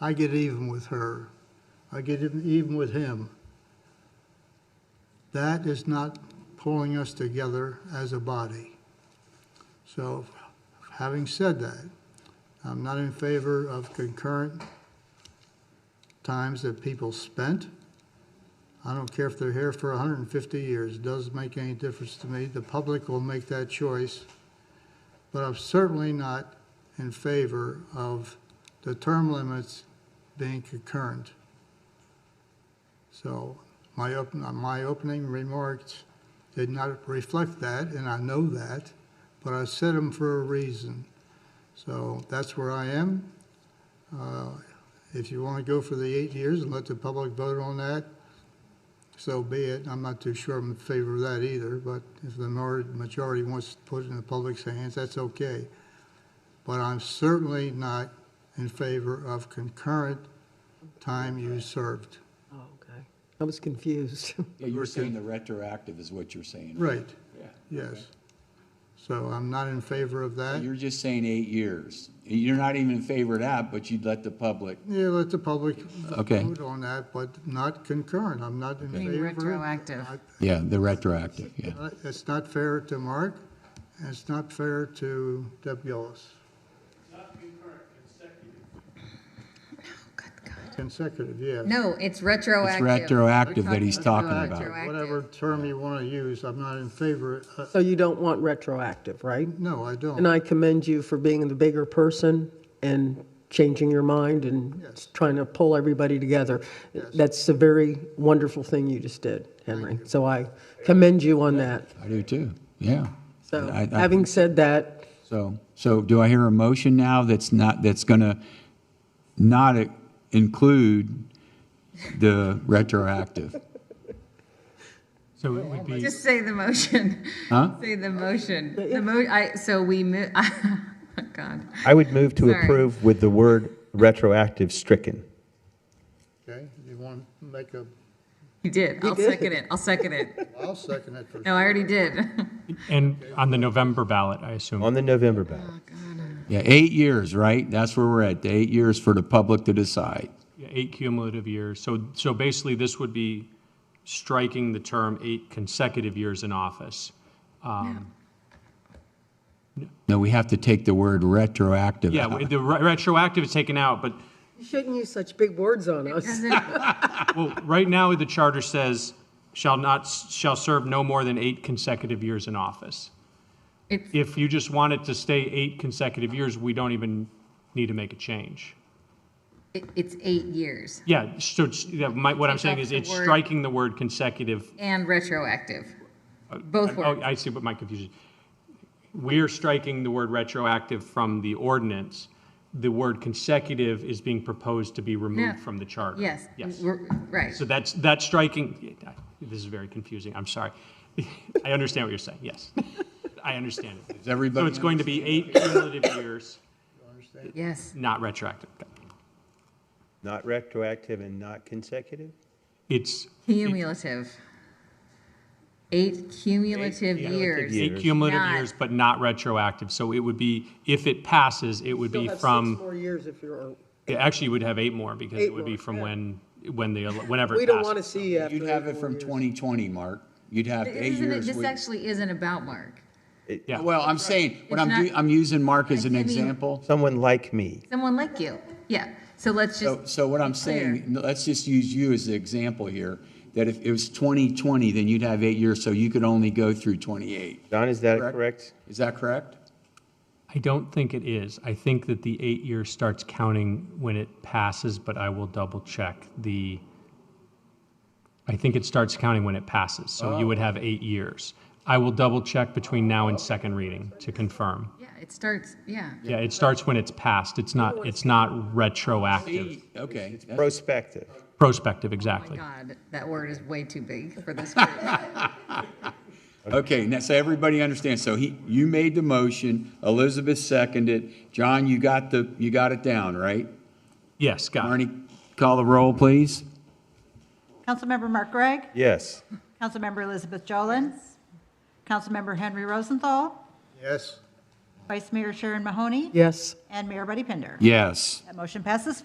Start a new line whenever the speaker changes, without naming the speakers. I get even with her. I get even- even with him. That is not pulling us together as a body. So, having said that, I'm not in favor of concurrent times that people spent. I don't care if they're here for 150 years, it doesn't make any difference to me. The public will make that choice. But I'm certainly not in favor of the term limits being concurrent. So my open, my opening remarks did not reflect that, and I know that, but I said them for a reason. So that's where I am. Uh, If you want to go for the eight years and let the public vote on that, so be it. I'm not too sure I'm in favor of that either, but if the mar- majority wants to put it in the public's hands, that's okay. But I'm certainly not in favor of concurrent time you served.
Oh, okay. I was confused.
Yeah, you're saying the retroactive is what you're saying.
Right,
Yeah.
yes. So I'm not in favor of that.
You're just saying eight years. You're not even in favor of that, but you'd let the public.
Yeah, let the public
Okay.
vote on that, but not concurrent. I'm not in
Being
favor.
retroactive.
I-
Yeah, the retroactive, yeah.
Uh, It's not fair to Mark, and it's not fair to Deb Gillis. Consecutive, yeah.
No, it's
It's
retroactive.
retroactive that he's talking
Retroactive.
about.
Whatever term you want to use, I'm not in favor. uh,
So you don't want retroactive, right?
No, I
And
don't.
I commend you for being the bigger person and changing your mind and
Yes.
trying to pull everybody together. That's a very wonderful thing you just did, Henry. So I commend you on that.
I do too, yeah.
So
I- I-
having said that,
So, so do I hear a motion now that's not, that's gonna not include the retroactive?
So it would be,
Just say the motion.
Huh?
Say the motion. The mo, I, so we mo, oh, God.
I would move to
Sorry.
approve with the word retroactive stricken.
Okay, you want to make a,
You did. I'll second it. I'll second it.
I'll second it for,
No, I already did.
and on the November ballot, I assume.
On the November ballot,
Yeah, eight years, right? That's where we're at, the eight years for the public to decide.
Yeah, Eight cumulative years. So, so basically, this would be striking the term eight consecutive years in office. Um,
No, we have to take the word retroactive
Yeah,
out.
the re- retroactive is taken out, but,
you shouldn't use such big words on us.
Doesn't-
well, right now, the charter says, shall not, shall serve no more than eight consecutive years in office.
It's-
If you just want it to stay eight consecutive years, we don't even need to make a change.
it- It's eight years
Yeah, so, it's- yeah, my- what I'm
Take
saying
off
is
the
it's
word-
striking the word consecutive
and retroactive. Both
Oh,
words.
I see what my confusion. We're striking the word retroactive from the ordinance. The word consecutive is being proposed to be removed
No.
from the charter.
Yes.
Yes.
we're- Right.
So that's, that's striking, this is very confusing, I'm sorry. I understand what you're saying, yes. I understand it.
Does everybody
So it's going to be eight cumulative years,
Yes.
not retroactive.
not retroactive and not consecutive?
It's
Cumulative. Eight cumulative
yeah.
years.
eight cumulative
Not-
years, but not retroactive. So it would be, if it passes, it would be
You'll have six
from.
more years if you're-
It actually would have eight more because
Eight
it would be
more,
from
yeah.
when, when they, whenever
We
it
don't want to
passes.
see you after
You'd have
eight
it
more
from
years.
2020, Mark. You'd have eight
Isn't it,
years.
this
with-
actually isn't about Mark.
Yeah.
Well, I'm saying, what I'm,
It's
do-
not-
I'm using Mark as
I
an
mean-
example.
Someone like me.
Someone like you. Yeah. So let's just,
So, so what I'm saying, no, let's just use you as the example here, that if it was 2020, then you'd have eight years, so you could only go through 28.
Don, is that
Correct.
correct?
Is that correct?
I don't think it is. I think that the eight year starts counting when it passes, but I will double check the, I think it starts counting when it passes. So you would
Oh.
have eight years. I will double check between now and second reading to confirm.
yeah, it starts, yeah.
Yeah, it starts when it's passed. It's not, it's not retroactive.
Eight, Okay. that's-
Prospective.
Prospective,
Oh my
exactly.
God, that word is way too big for this group.
Okay, now, so everybody understands, so he, you made the motion, Elizabeth seconded, John, you got the, you got it down, right?
Yes, got it.
Marnie, call the roll, please.
Councilmember Mark Gregg.
Yes.
Councilmember Elizabeth Jolin. Councilmember Henry Rosenthal.
yes.
Vice Mayor Sharon Mahoney.
Yes.
And Mayor Buddy Pinder.
Yes.
That motion passes